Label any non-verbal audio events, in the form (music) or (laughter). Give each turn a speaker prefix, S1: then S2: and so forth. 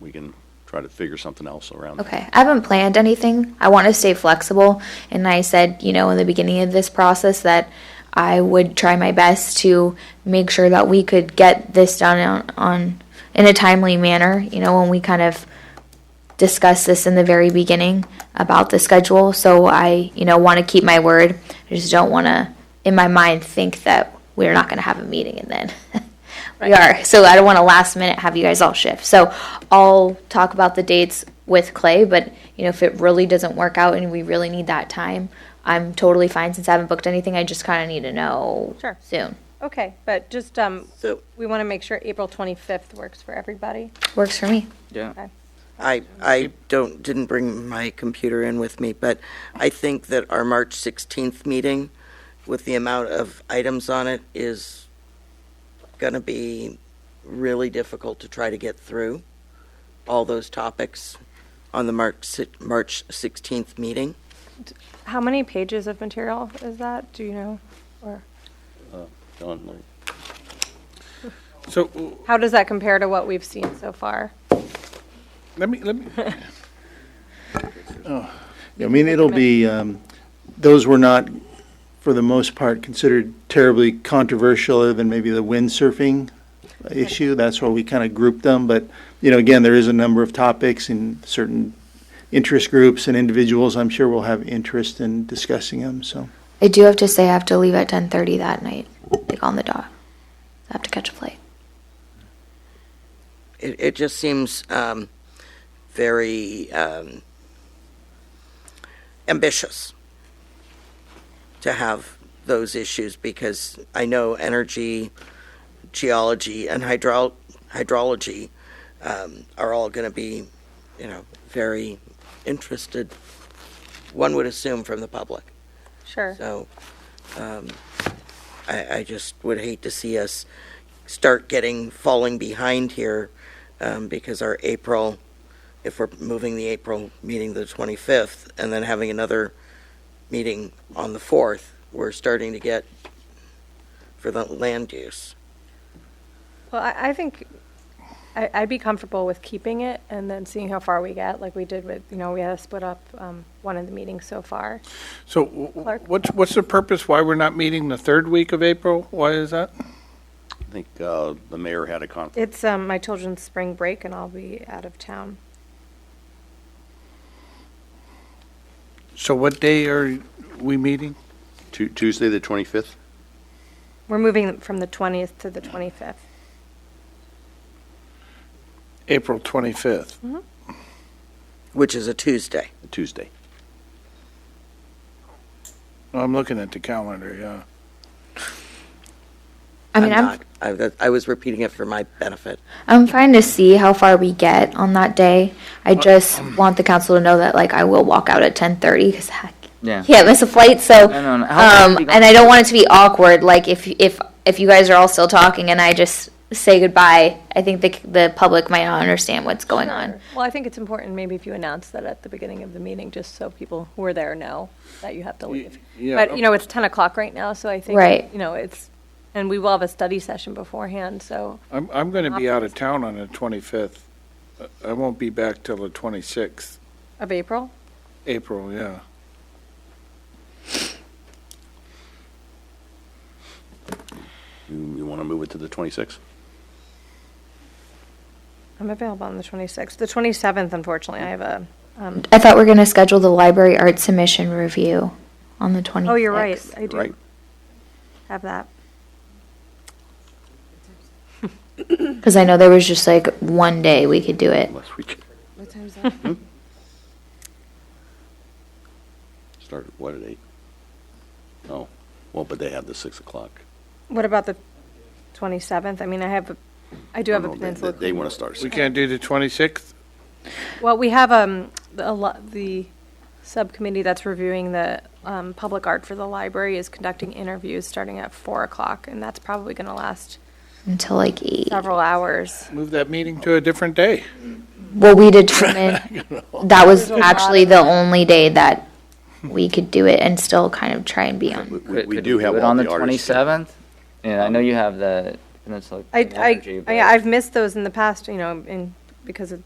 S1: we can try to figure something else around. that.
S2: Okay, I haven't planned anything. I want to stay flexible. And I said, you know, in the beginning of this process that I would try my best to make sure that we could get this done on, on in a timely manner, you know, when we kind of discussed this in the very beginning about the schedule. So I, you know, want to keep my word. I just don't want to, in my mind, think that we're not going to have a meeting and then (laughs) we are. So I don't want to last minute have you guys all shift. So I'll talk about the dates with Clay, but, you know, if it really doesn't work out and we really need that time, I'm totally fine since I haven't booked anything. I just kind of need to know
S3: Sure.
S2: soon.
S3: Okay, but just, um,
S4: So-
S3: we want to make sure April 25th works for everybody.
S2: Works for me.
S5: Yeah.
S4: I, I don't, didn't bring my computer in with me, but I think that our March 16th meeting with the amount of items on it is going to be really difficult to try to get through all those topics on the March, si- March 16th meeting.
S3: How many pages of material is that? Do you know? Or
S1: Done, like-
S5: So w-
S3: how does that compare to what we've seen so far?
S5: let me, let me,
S6: I mean, it'll be, um, those were not, for the most part, considered terribly controversial, other than maybe the windsurfing issue. That's why we kind of grouped them, but, you know, again, there is a number of topics and certain interest groups and individuals, I'm sure will have interest in discussing them, so.
S2: I do have to say I have to leave at 10:30 that night, like on the dot. I have to catch a flight.
S4: It, it just seems um, very um, ambitious to have those issues because I know energy, geology, and hydro- hydrology um, are all going to be, you know, very interested. One would assume from the public.
S3: Sure.
S4: So um, I, I just would hate to see us start getting falling behind here um, because our April, if we're moving the April meeting to the 25th and then having another meeting on the 4th, we're starting to get for the land use.
S3: Well, I, I think I, I'd be comfortable with keeping it and then seeing how far we get, like we did with, you know, we had to split up, um, one of the meetings so far.
S5: so w- w-
S3: Clark?
S5: what's, what's the purpose, why we're not meeting the third week of April? Why is that?
S1: I think uh, the mayor had a conflict.
S3: It's, um, my children's spring break and I'll be out of town.
S5: So what day are we meeting?
S1: Tu- Tuesday, the 25th?
S3: We're moving from the 20th to the 25th.
S5: April 25th.
S4: Which is a Tuesday.
S1: Tuesday.
S5: I'm looking at the calendar, yeah.
S2: I mean,
S4: I'm
S2: I'm
S4: not- I, that- I was repeating it for my benefit.
S2: I'm trying to see how far we get on that day. I just want the council to know that like I will walk out at 10:30 because I
S7: Yeah.
S2: can't miss a flight. So,
S7: I know, and how far
S2: um,
S7: we go-
S2: and I don't want it to be awkward. Like if if if you guys are all still talking and I just say goodbye, I think the the public might not understand what's going on.
S3: Well, I think it's important maybe if you announce that at the beginning of the meeting, just so people who are there know that you have to leave.
S5: yeah,
S3: But, you know, it's 10 o'clock right now, so I think,
S2: Right.
S3: you know, it's, and we will have a study session beforehand, so
S5: I'm, I'm going to be out of town on the 25th. Uh, I won't be back till the 26th,
S3: of April.
S5: April, yeah.
S1: You want to move it to the 26th?
S3: I'm available on the 26th. The 27th, unfortunately, I have a,
S2: I thought we are going to schedule the library art submission review on the 26th.
S3: oh, you're right. I
S1: Right?
S3: do have that.
S2: Because I know there was just like one day we could do it.
S1: Unless we Hmm? c-
S8: What time's that?
S1: start, what, at 8? Oh, well, but they have the 6 o'clock.
S3: What about the 27th? I mean, I have, a I do have a
S1: No, they-
S3: peninsula.
S1: They want to start.
S5: We
S1: six.
S5: can't do the 26th?
S3: Well, we have um, the- a lot, the subcommittee that's reviewing the um, public art for the library is conducting interviews starting at four o'clock, and that's probably going to last
S2: until like eight.
S3: several hours.
S5: Move that meeting to a different day.
S2: Well, we determined that was actually the only day that we could do it and still kind of try and be on.
S1: We- We we
S7: Could
S1: do have
S7: it
S1: all
S7: on
S1: the
S7: twenty
S1: artists.
S7: seventh. Yeah, I know you have the Peninsula
S3: I,
S7: Energy,
S3: I,
S7: but-
S3: I- I've missed those in the past, you know, in, because of